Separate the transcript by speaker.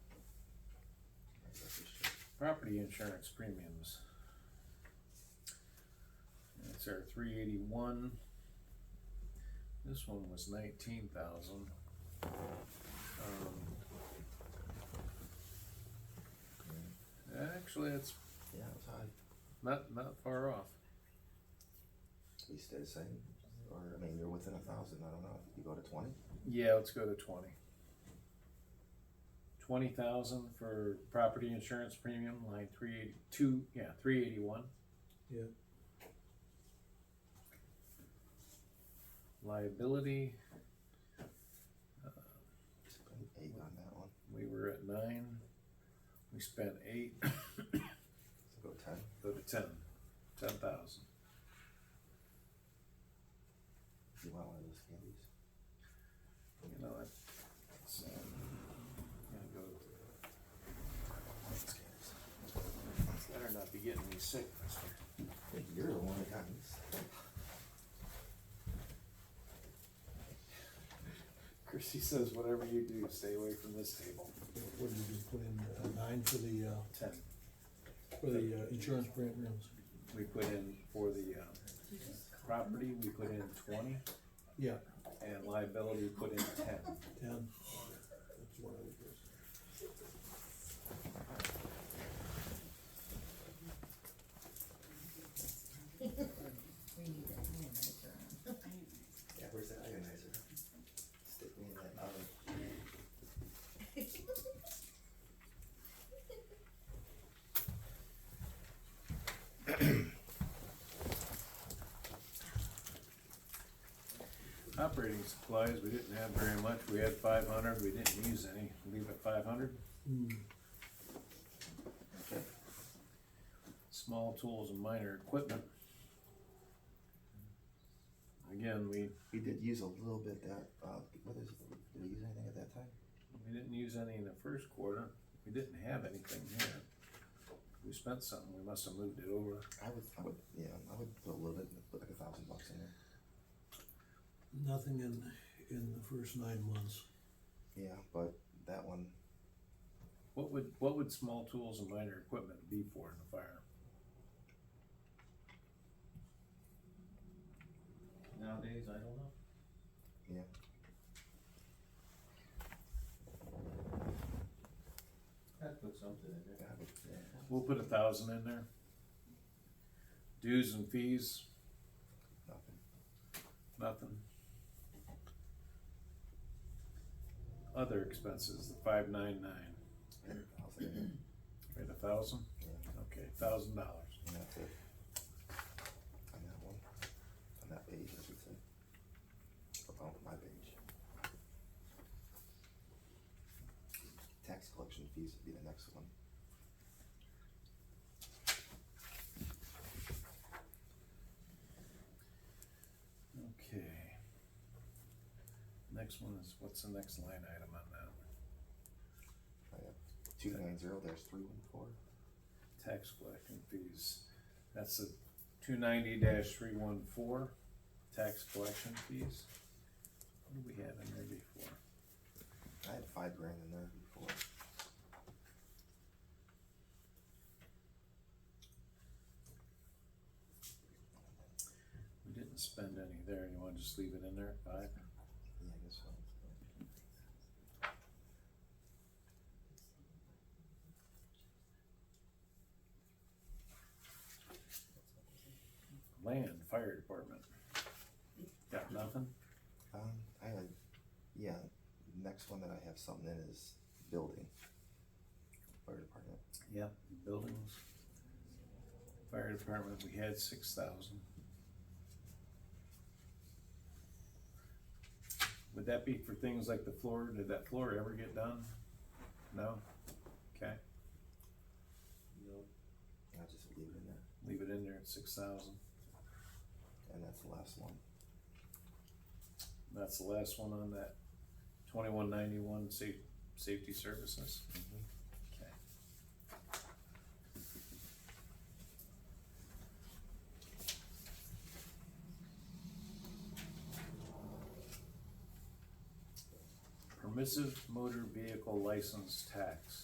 Speaker 1: property insurance premiums. That's our three eighty-one. This one was nineteen thousand. Um, Actually, it's
Speaker 2: Yeah, it's high.
Speaker 1: not, not far off.
Speaker 2: We stay the same, or, I mean, you're within a thousand, I don't know, you go to twenty?
Speaker 1: Yeah, let's go to twenty. Twenty thousand for property insurance premium, line three eighty, two, yeah, three eighty-one.
Speaker 3: Yeah.
Speaker 1: Liability,
Speaker 2: Spend Eight on that one,
Speaker 1: we were at nine, we spent eight,
Speaker 2: so go ten.
Speaker 1: go to ten, ten thousand.
Speaker 2: You want one of those candies?
Speaker 1: You know, that's, um, gonna go,
Speaker 2: Those candies.
Speaker 1: better not be getting me sick, mister.
Speaker 2: You're the one that got these.
Speaker 1: Chrissy says, whatever you do, stay away from this table.
Speaker 3: What did you put in, uh, nine for the, uh,
Speaker 1: Ten,
Speaker 3: for the uh, insurance premiums?
Speaker 1: we put in for the, um, property, we put in twenty,
Speaker 3: Yeah,
Speaker 1: and liability, we put in ten.
Speaker 3: ten. That's what I was-
Speaker 4: We need that ionizer on.
Speaker 2: Yeah, where's that ionizer? Stick me in that oven.
Speaker 1: Operating supplies, we didn't have very much, we had five hundred, we didn't use any, leave it five hundred.
Speaker 3: Hmm,
Speaker 2: Okay.
Speaker 1: Small tools and minor equipment. Again, we,
Speaker 2: We did use a little bit that, uh, what is, did we use anything at that time?
Speaker 1: we didn't use any in the first quarter, we didn't have anything here. We spent something, we must have moved it over.
Speaker 2: I would, I would, yeah, I would put a little bit, put like a thousand bucks in there.
Speaker 3: nothing in, in the first nine months.
Speaker 2: Yeah, but that one,
Speaker 1: What would, what would small tools and minor equipment be for in the fire?
Speaker 5: Nowadays, I don't know.
Speaker 2: yeah.
Speaker 5: I'd put something in there.
Speaker 2: I would- yeah.
Speaker 1: We'll put a thousand in there. Dues and fees,
Speaker 2: Nothing.
Speaker 1: nothing. Other expenses, the five nine nine,
Speaker 2: Hundred thousand in there.
Speaker 1: right, a thousand?
Speaker 2: Yeah.
Speaker 1: Okay, thousand dollars.
Speaker 2: And that's it. On that one, on that page, I should say. Oh, my page. Tax collection fees would be the next one.
Speaker 1: Okay. Next one is, what's the next line item on that?
Speaker 2: I have two nine zero, there's three one four.
Speaker 1: Tax collection fees. That's the two ninety dash three one four, tax collection fees. What do we have in there before?
Speaker 2: I had five grand in there before.
Speaker 1: We didn't spend any there, you wanna just leave it in there, five?
Speaker 2: Yeah, I guess so.
Speaker 1: Land, fire department. Got nothing?
Speaker 2: Um, I had, yeah, next one that I have something in is building. Fire department.
Speaker 1: Yeah. Buildings. Fire department, we had six thousand. Would that be for things like the floor, did that floor ever get done? No? Okay,
Speaker 5: No.
Speaker 2: I'll just leave it in there.
Speaker 1: leave it in there at six thousand,
Speaker 2: And that's the last one.
Speaker 1: that's the last one on that twenty-one ninety-one sa- safety services,
Speaker 2: Mm-hmm.
Speaker 1: okay. Permissive motor vehicle license tax.